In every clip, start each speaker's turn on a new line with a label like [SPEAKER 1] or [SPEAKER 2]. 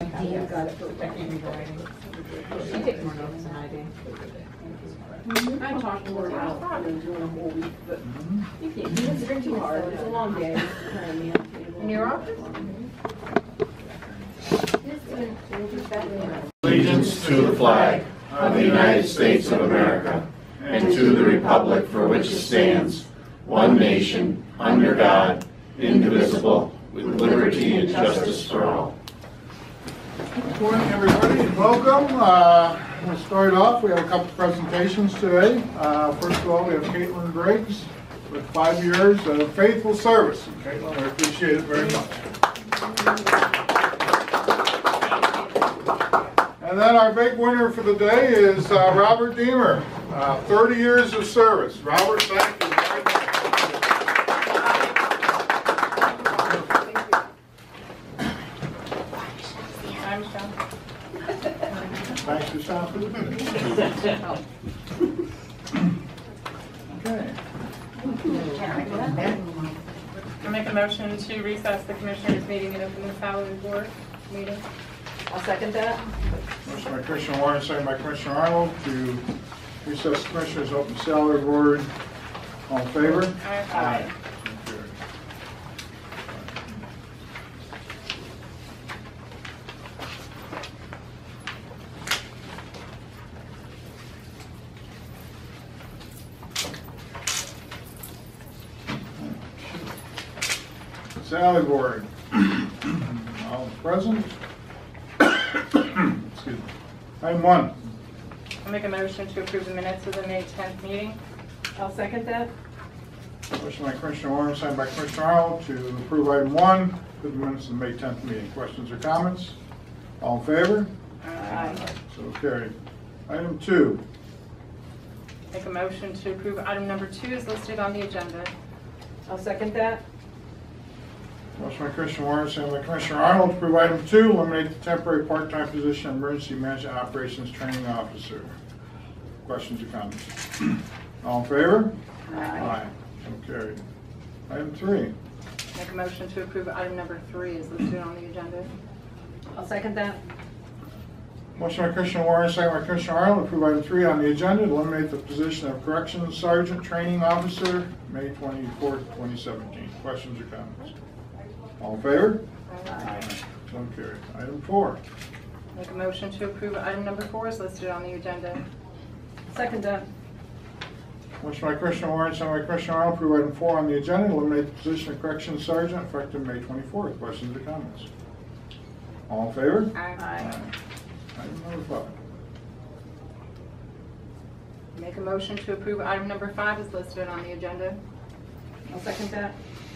[SPEAKER 1] Dean got it for
[SPEAKER 2] She takes more notes than I do.
[SPEAKER 1] Mm-hmm. I talked to her about probably doing a whole week, but
[SPEAKER 2] Mm-hmm.
[SPEAKER 1] you can't, you just drink too hard, it's a long day.
[SPEAKER 3] Allegiance to the flag of the United States of America and to the republic for which it stands, one nation, under God, indivisible, with liberty and justice for all. Good morning, everybody, and welcome. Uh, We'll start off, we have a couple presentations today. Uh, First of all, we have Caitlin Briggs with five years of faithful service. And Caitlin, I appreciate it very much. And then our big winner for the day is uh, Robert Deemer, uh, 30 years of service. Robert, thank you. very much. Thanks for stopping. Okay.
[SPEAKER 4] I make a motion to recess the commissioners' meeting and open the salary board meeting.
[SPEAKER 2] I'll second that.
[SPEAKER 3] Motion by Commissioner Warren, second by Commissioner Arnold to recess Commissioners' open salary board. All in favor?
[SPEAKER 4] Aye.
[SPEAKER 3] Salary board. All present? Excuse me. Item one.
[SPEAKER 4] I make a motion to approve the minutes of the May 10th meeting.
[SPEAKER 2] I'll second that.
[SPEAKER 3] Motion by Commissioner Warren, second by Commissioner Arnold to approve item one, for the minutes of the May 10th meeting. Questions or comments? All in favor?
[SPEAKER 2] Aye.
[SPEAKER 3] So carried. Item two.
[SPEAKER 4] Make a motion to approve item number two is listed on the agenda.
[SPEAKER 2] I'll second that.
[SPEAKER 3] Motion by Commissioner Warren, second by Commissioner Arnold to approve item two, eliminate the temporary part-time position of emergency management operations training officer. Questions or comments? All in favor? Aye. So carried. Item three.
[SPEAKER 4] Make a motion to approve item number three is listed on the agenda.
[SPEAKER 2] I'll second that.
[SPEAKER 3] Motion by Commissioner Warren, second by Commissioner Arnold, to approve item three on the agenda, to eliminate the position of corrections sergeant training officer, May twenty-fourth, twenty seventeen. Questions or comments? All in favor? Aye. So carried. Item four.
[SPEAKER 4] Make a motion to approve item number four is listed on the agenda.
[SPEAKER 2] Second that.
[SPEAKER 3] Motion by Commissioner Warren, second by Commissioner Arnold, to approve item four on the agenda, to eliminate the position of corrections sergeant effective May twenty-fourth. Questions or comments? All in favor?
[SPEAKER 4] Aye.
[SPEAKER 3] Item number five.
[SPEAKER 4] Make a motion to approve item number five is listed on the agenda.
[SPEAKER 2] I'll second that.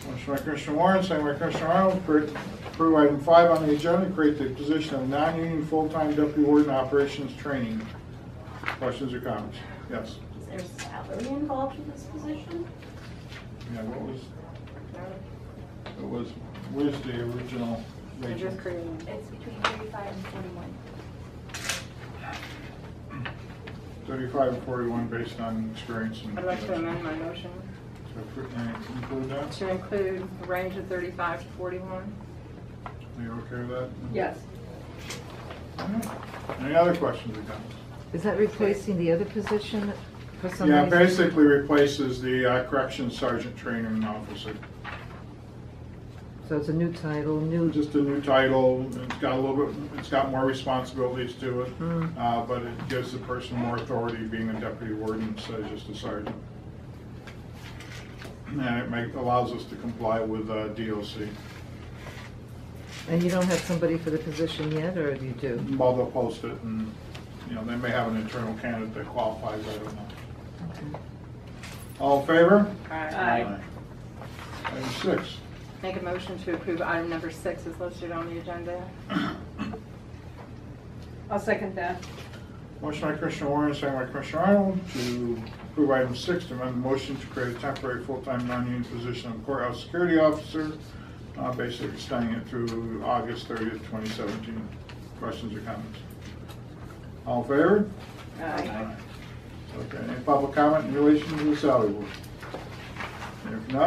[SPEAKER 3] Motion by Commissioner Warren, second by Commissioner Arnold, to approve item five on the agenda, create the position of non-union full-time deputy warden operations training. Questions or comments? Yes.
[SPEAKER 5] Is there salary involved in this position?
[SPEAKER 3] Yeah, what was,
[SPEAKER 4] No?
[SPEAKER 3] it was, where's the original
[SPEAKER 4] We're
[SPEAKER 3] Rachel?
[SPEAKER 4] just creating.
[SPEAKER 5] It's between thirty-five and forty-one.
[SPEAKER 3] Thirty-five and forty-one based on experience and.
[SPEAKER 4] I'd like to amend my motion
[SPEAKER 3] So, uh, Include that?
[SPEAKER 4] to include a range of 35 to 41.
[SPEAKER 3] Are you okay with that?
[SPEAKER 2] Yes.
[SPEAKER 3] Yeah. Any other questions or comments?
[SPEAKER 6] Is that replacing the other position for some
[SPEAKER 3] Yeah,
[SPEAKER 6] reason?
[SPEAKER 3] basically replaces the uh, corrections sergeant training officer.
[SPEAKER 6] So it's a new title, new,
[SPEAKER 3] Just a new title, it's got a little bit, it's got more responsibilities to it, uh, but it gives the person more authority being a deputy warden instead of just a sergeant. And it make, allows us to comply with uh, DOC,
[SPEAKER 6] and you don't have somebody for the position yet, or do you do?
[SPEAKER 3] while they'll post it, and, you know, they may have an internal candidate that qualifies, I don't know. All in favor?
[SPEAKER 2] Aye.
[SPEAKER 3] Item six.
[SPEAKER 4] Uh, Make a motion to approve item number six is listed on the agenda.
[SPEAKER 2] I'll second that.
[SPEAKER 3] Motion by Commissioner Warren, second by Commissioner Arnold, to approve item six, to amend the motion to create a temporary full-time non-union position of courthouse security officer, uh, basically extending it through August 30th, 2017. Questions or comments? All in favor?
[SPEAKER 2] Aye.
[SPEAKER 3] Okay, any public comment in relation to the salary board?